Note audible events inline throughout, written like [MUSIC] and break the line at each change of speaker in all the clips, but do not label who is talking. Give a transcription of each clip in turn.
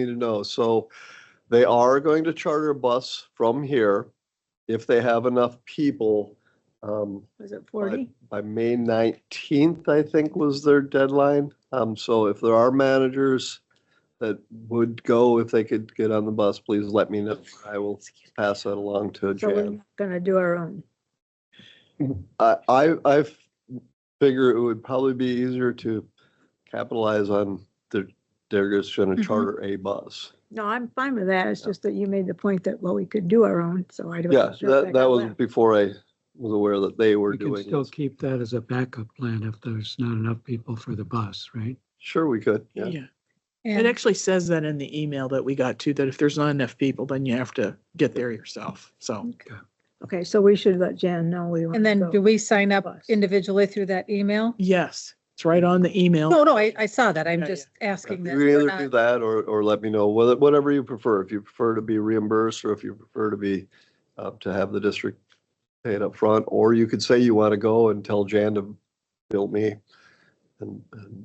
need to know. So they are going to charter a bus from here if they have enough people. Um,
Was it forty?
by May nineteenth, I think was their deadline. Um, so if there are managers that would go, if they could get on the bus, please let me know. I will pass that along to
So we're
Jan.
not gonna do our own.
I, I, I f- figure it would probably be easier to capitalize on the, they're just gonna
Mhm.
charter a bus.
No, I'm fine with that. It's just that you made the point that, well, we could do our own, so I don't.
Yeah,
know if
that, that
got
was
left.
before I was aware that they were
We can
doing
still
it.
keep that as a backup plan if there's not enough people for the bus, right?
Sure, we could, yeah.
Yeah, it
And
actually says that in the email that we got too, that if there's not enough people, then you have to get there yourself. So
Okay, so we should let Jan know we want.
And then do we sign up
bus.
individually through that email?
yes, it's right on the email.
No, no, I, I saw that. I'm
Yeah, yeah.
just asking that.
You
we're
either do
not-
that or, or let me know, whether- whatever you prefer, if you prefer to be reimbursed or if you prefer to be, uh, to have the district pay it up front, or you could say you want to go and tell Jan to bill me. And, and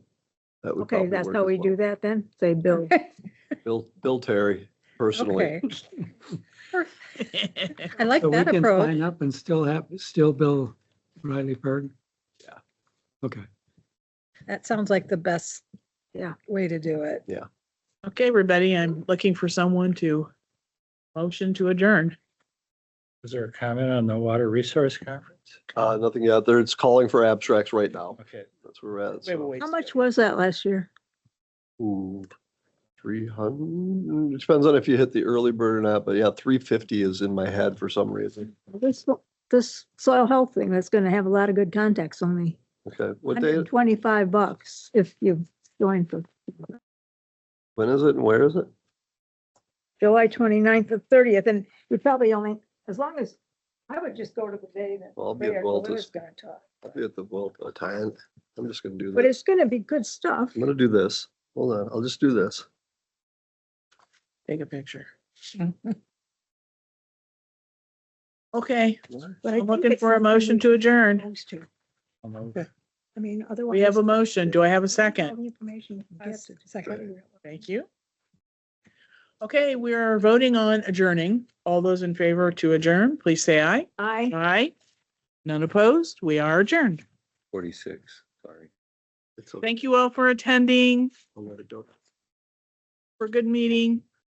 that would
Okay,
probably
that's
work
how
as
we
well.
do that then? Say Bill.
Bill, Bill Terry personally.
Okay. I like
So we
that
can
approach.
sign up and still have, still bill Riley Berg?
Yeah.
Okay,
That sounds like the best
Yeah.
way to do it.
[LAUGHS] Okay, everybody, I'm looking for someone to motion to adjourn.
Was there a comment on the water resource conference?
Uh, nothing out there. It's calling for abstracts right now.
Okay.
That's where we're at.
Wait, wait,
So,
wait.
How much was that last year?
three hundred, it depends on if you hit the early bird or not, but yeah, three fifty is in my head for some reason.
This, this soil health thing, that's gonna have a lot of good contacts on me.
Okay, what
Hundred
day,
and twenty-five bucks if you join for
when is it and where is it?
July 29th to thirtieth, and you probably only, as long as, I would just go to the day that.
Well, I'll be
Mayor
involved
Galula's
as-
gonna talk.
I'll be at the Vuelta time. I'm just gonna do
But
this.
it's gonna be good stuff.
I'm gonna do this. Hold on, I'll just do this.
Take
[LAUGHS]
a picture. Okay,
But I
I'm
think
looking
it's
for a
something we
motion to
should
adjourn.
post to.
Okay.
I mean, otherwise.
We have a motion. Do I have a
All
second?
the information you can
I
get
s-
to just
second.
go to your-
Thank you. Okay, we are voting on adjourning. All those in favor to adjourn, please say aye.
I.
Aye. None opposed. We are adjourned.
Forty-six, sorry.
It's okay.
Thank you all for attending,
I'll let it go.
for a good meeting.